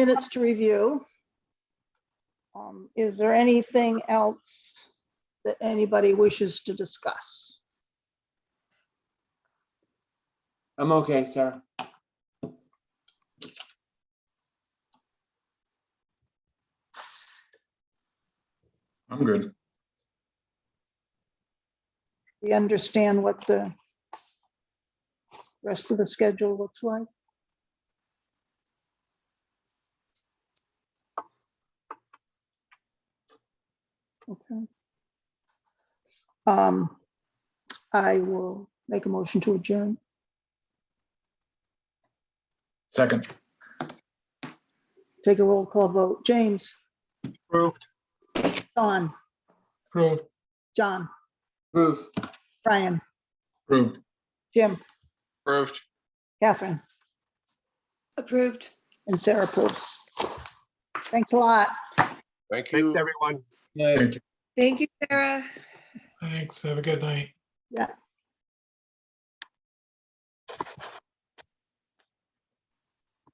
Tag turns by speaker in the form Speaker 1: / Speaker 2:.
Speaker 1: minutes to review. Um, Is there anything else that anybody wishes to discuss?
Speaker 2: I'm okay, Sarah.
Speaker 3: I'm good.
Speaker 1: We understand what the rest of the schedule looks like. Okay. Um, I will make a motion to adjourn.
Speaker 3: Second,
Speaker 1: Take a roll call vote. James,
Speaker 4: Approved.
Speaker 1: Don,
Speaker 4: Approved.
Speaker 1: John,
Speaker 2: Proof.
Speaker 1: Brian,
Speaker 3: approved.
Speaker 1: Jim,
Speaker 4: Approved.
Speaker 1: Catherine,
Speaker 5: Approved.
Speaker 1: and Sarah Poops. Thanks a lot.
Speaker 6: Thank you.
Speaker 4: Thanks, everyone.
Speaker 2: Yeah.
Speaker 5: Thank you, Sarah.
Speaker 7: Thanks. Have a good night.